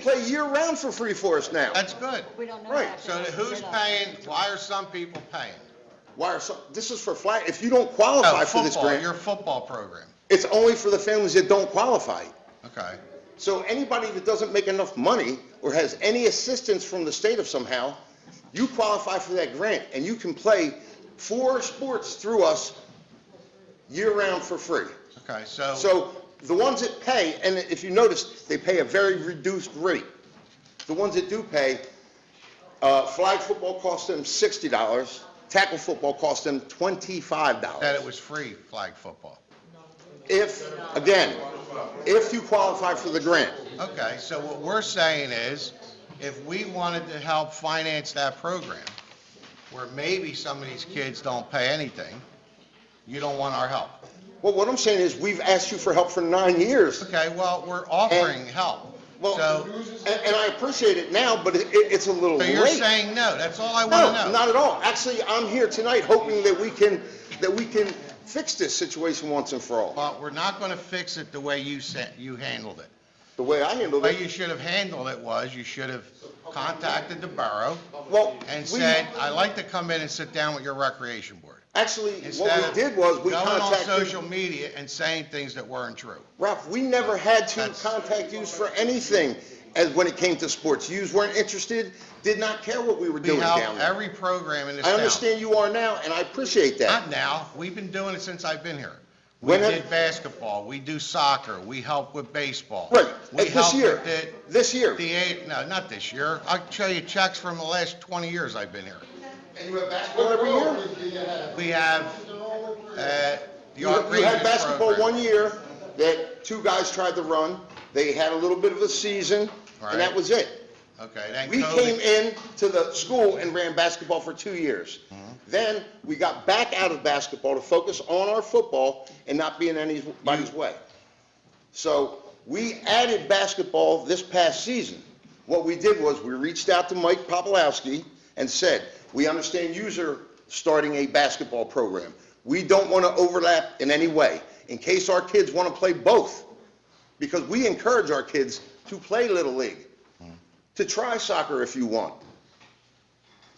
play year-round for free for us now. That's good. We don't know Right, that. So then who's paying, why are some people paying? Why are some, this is for flag, if you don't Oh, qualify for this football, your grant, football program. it's only for the families that don't qualify. Okay. So anybody that doesn't make enough money or has any assistance from the state of somehow, you qualify for that grant and you can play four sports through us year-round for free. Okay, so, So the ones that pay, and if you notice, they pay a very reduced rate. The ones that do pay, uh, flag football costs them sixty dollars, tackle football costs them twenty-five that it dollars. was free flag football. If, again, if you qualify for the grant, Okay, so what we're saying is, if we wanted to help finance that program, where maybe some of these kids don't pay anything, you don't want our help. well, what I'm saying is, we've asked you for help for nine years. Okay, well, we're offering help. Well, So, and, and I appreciate it now, but it, it's a little so late. you're saying no, that's all I want to No, know. not at all. Actually, I'm here tonight hoping that we can, that we can fix this situation once and for all. But we're not going to fix it the way you said, you handled it. The way I handled The it. way you should have handled it was, you should have contacted the borough Well, and we- said, I'd like to come in and sit down with your recreation board. Actually, Instead what we of did was, we Going on contacted, social media and saying things that weren't true. Ralph, we never had to That's- contact yous for anything as, when it came to sports. Yous weren't interested, did not care what we were We doing help down there. every program in this I town. understand you are now, and I appreciate that. Not now, we've been doing it since I've been here. We When have- did basketball, we do soccer, we help with baseball. Right, and We this help year, with the, this year. the, eight- no, not this year. I'll show you checks from the last 20 years I've been here. And you have basketball every year? We have, uh, the You Art you had Rangers basketball program. one year that two guys tried to run, they had a little bit of a season, Right. and that was it. Okay, then We came COVID, in to the school and ran basketball for two years. Then we got back out of basketball to focus on our football and not be in anybody's way. So we added basketball this past season. What we did was we reached out to Mike Popolowski and said, we understand you're starting a basketball program. We don't want to overlap in any way in case our kids want to play both. Because we encourage our kids to play Little League to try soccer if you want.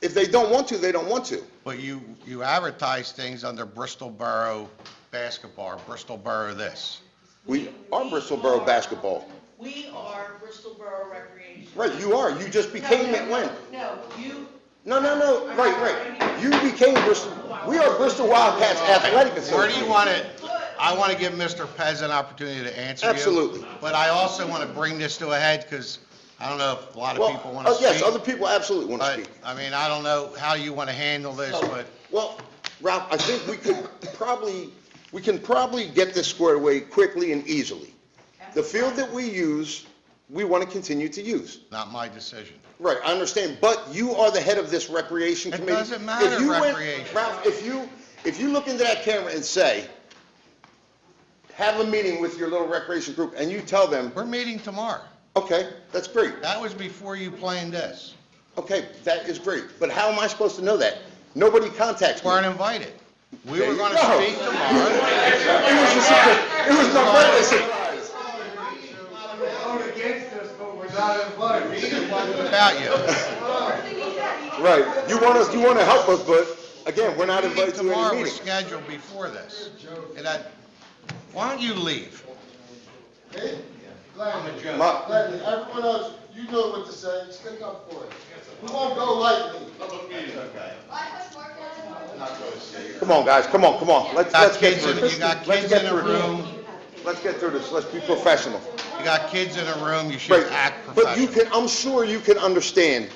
If they don't want to, they don't want to. but you, you advertise things under Bristol Borough Basketball, or Bristol Borough this. We are Bristol Borough basketball. We are Bristol Borough Recreation. Right, you are, you just became it when? No, you, No, no, no, right, right. You became Bristol, we are Bristol Wildcats Athletic Where do you Association. want it? I want to give Mr. Pez an opportunity to answer you. Absolutely. But I also want to bring this to a head because I don't know if a lot of Well, people want to oh, speak. yes, other people absolutely want to But, speak. Oh. I mean, I don't know how you want to handle this, but Well, Ralph, I think we could probably, we can probably get this squared away quickly and easily. The field that we use, we want to continue to use. not my decision. Right, I understand, but you are the head of this recreation It committee. doesn't matter, If you went- recreation. Ralph, if you, if you look into that camera and say, have a meeting with your little recreation group, and you tell them, We're meeting tomorrow. okay, that's great, That was before you planned this. okay, that is great, but how am I supposed to know that? Nobody contacts me. Weren't invited. We were going to No. speak tomorrow. It was just such a- it was an umbrella surprise. About you. Right, you want us, you want to help us, but again, we're not Meeting invited to tomorrow any was meeting. scheduled before this. And I, why don't you leave? Gladly, My- gladly. Everyone else, you know what to say, stick up for it. We won't go lightly. Come on, guys, come on, come on, let's, Got let's get kids through in, this. you got Let's kids get in a through this. room. Let's get through this, let's be professional. You got kids in a room, you should Right, act But you professional. can, I'm sure you can understand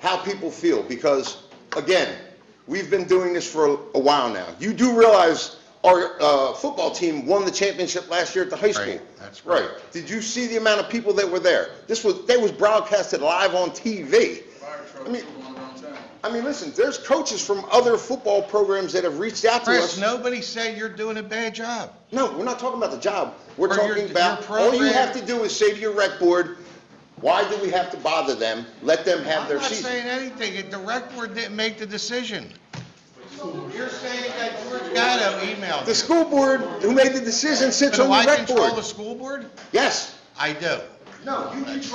how people feel, because, again, we've been doing this for a while now. You do realize our uh, football team won the championship last year at the high school. Right, that's Right, correct. did you see the amount of people that were there? This was, they was broadcasted live on TV. I mean, I mean, listen, there's coaches from other football programs that have reached out to Chris, us. nobody said you're doing a bad job. No, we're not talking about the job. We're Or your- talking about, your all you program- have to do is say to your rec board, why do we have to bother them? Let them have I'm their not season. saying anything, It- the rec board didn't make the decision. You're saying that George Gatto emailed The you. school board who made the decision sits So on do I the rec control the board. school board? Yes. I do. No, you control